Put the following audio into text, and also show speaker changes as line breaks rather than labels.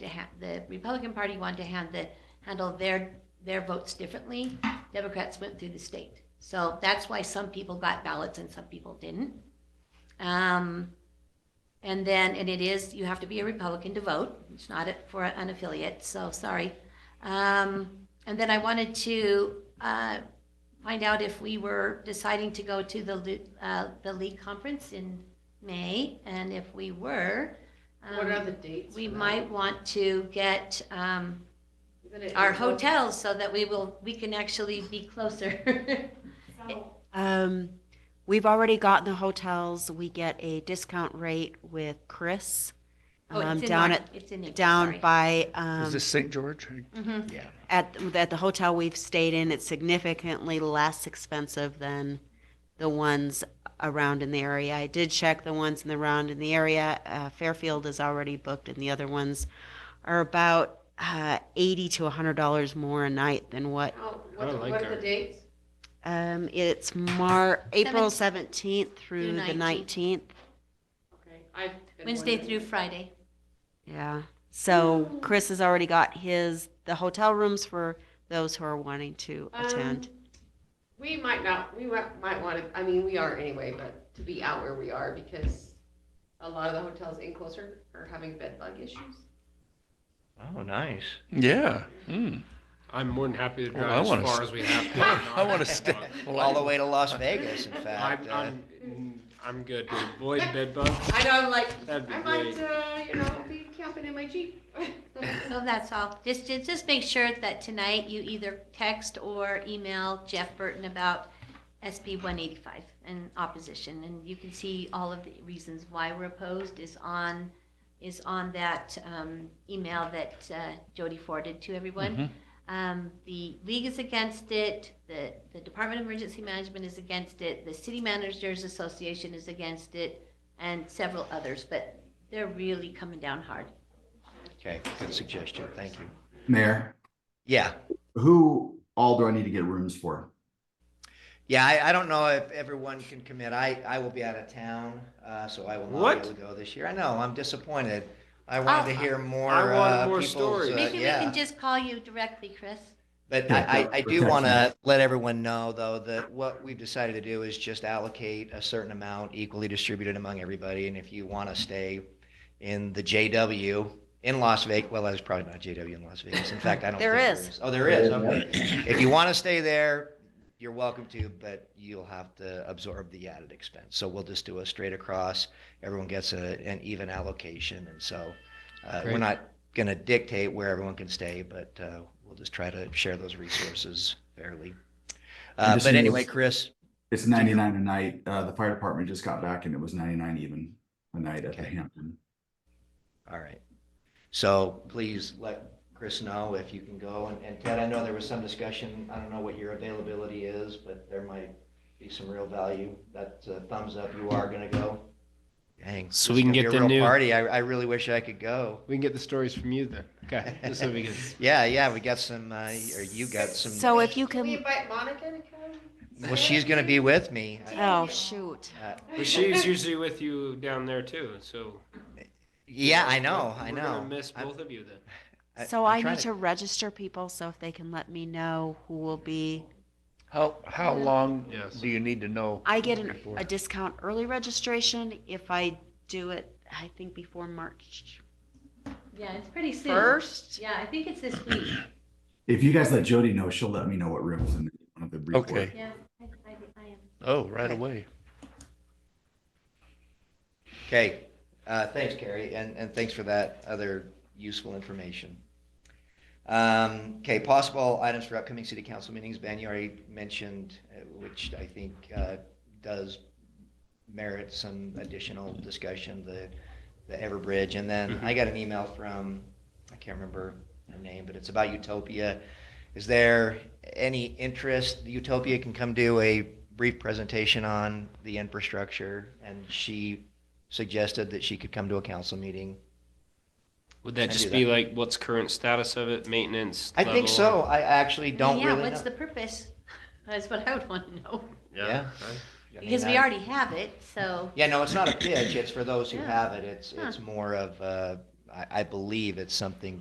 to ha, the Republican Party wanted to hand the, handle their, their votes differently. Democrats went through the state. So that's why some people got ballots and some people didn't. Um, and then, and it is, you have to be a Republican to vote. It's not a- for an affiliate, so sorry. Um, and then I wanted to, uh, find out if we were deciding to go to the, Lu- uh, the league conference in May, and if we were.
What
um,
are the dates?
we
for that?
might want to get um,
We're gonna-
our hotels so that we will, we can actually be closer.
Um, we've already gotten the hotels. We get a discount rate with Chris
Oh,
um,
it's in
down
March.
at
It's in April,
down
sorry.
by
Is
um,
this St. George?
Mhm.
Yeah.
at at the hotel we've stayed in. It's significantly less expensive than the ones around in the area. I did check the ones in the round in the area. Uh, Fairfield is already booked, and the other ones are about uh, eighty to hundred dollars more a night than what
How-
I
What the-
like
what are
our-
the dates?
Um, it's Mar, April 17th through the 19th.
Okay, I've been
Wednesday
wondering.
through Friday.
Yeah. So Chris has already got his, the hotel rooms for those who are wanting to
Um,
attend.
We might not, we wa- might want to, I mean, we are anyway, but to be out where we are because a lot of the hotels in closer are having bed bug issues.
Oh, nice.
Yeah. Mm.
I'm more than happy to
Well,
drive
I
as
wanna
far
s-
as we have to.
I want to stay. Well,
All
I-
the way to Las Vegas, in fact.
I'm,
uh,
I'm, I'm good to avoid bed bugs.
I know, I'm like,
That'd be
I might,
great.
uh, you know, be camping in my Jeep.
So that's all. Just, just just make sure that tonight you either text or email Jeff Burton about SB 185 and opposition. And you can see all of the reasons why we're opposed is on, is on that um, email that uh, Jody forwarded to everyone.
Mhm.
Um, the league is against it. The, the Department of Emergency Management is against it. The City Managers Association is against it, and several others. But they're really coming down hard.
Okay, good suggestion. Thank you.
Mayor,
Yeah.
who all do I need to get rooms for?
Yeah, I, I don't know if everyone can commit. I, I will be out of town, uh, so I will not
What?
be able to go this year. I know, I'm disappointed. I wanted to hear more.
I want
uh,
more
people's,
stories.
uh,
Maybe we
yeah.
can just call you directly, Chris.
But I, I, I do want to let everyone know, though, that what we've decided to do is just allocate a certain amount equally distributed among everybody. And if you want to stay in the JW in Las Vegas, well, that's probably not JW in Las Vegas. In fact, I don't.
There
think
is.
Oh, there is. Okay. If you want to stay there, you're welcome to, but you'll have to absorb the added expense. So we'll just do a straight across. Everyone gets a, an even allocation. And so uh, we're
Great.
not going to dictate where everyone can stay, but uh, we'll just try to share those resources fairly. Uh,
just
But
need
anyway,
those-
Chris,
It's ninety-nine a night. Uh, the fire department just got back and it was ninety-nine even a night at the
Okay.
Hampton.
all right. So please let Chris know if you can go. And- And Ted, I know there was some discussion, I don't know what your availability is, but there might be some real value. That's a thumbs up, you are going to go. Dang.
So
this
we
is gonna
can
be
get
a
the
real
new-
Party, I, I really wish I could go.
We can get the stories from you then. Okay, just so we can.
Yeah, yeah, we got some, uh, or you got some.
So if you
Can we
can,
invite Monica to come?
Well, she's going to be with me.
oh, shoot.
Uh,
But she's usually with you down there too, so.
Yeah, I know, I
We're gonna
know.
miss
I'm-
both of you then.
I-
So
I'm
I
trying
need to register people, so if they can let me know who will be.
How, how long
Yes.
do you need to know?
I get an,
before?
a discount early registration if I do it, I think before March
Yeah, it's pretty soon.
1st.
Yeah, I think it's this week.
If you guys let Jody know, she'll let me know what rooms and one of the brief.
Okay.
Yeah, I, I, I am.
Oh, right away.
Okay, uh, thanks, Carrie, and, and thanks for that other useful information. Um, okay, possible items for upcoming city council meetings, Ben, you already mentioned, uh, which I think, uh, does merit some additional discussion, the, the Everbridge, and then I got an email from, I can't remember her name, but it's about Utopia. Is there any interest, Utopia can come do a brief presentation on the infrastructure, and she suggested that she could come to a council meeting.
Would
I
that
do
just
that.
be like, what's current status of it, maintenance?
I think
level,
so.
or-
I actually don't
yeah,
really
what's the
know.
purpose? That's what I would want to know.
Yeah.
I-
I mean,
Because we
I-
already have it, so
Yeah, no, it's not a pitch. It's for those who
Yeah.
have it. It's,
Huh.
it's more of, uh, I, I believe it's something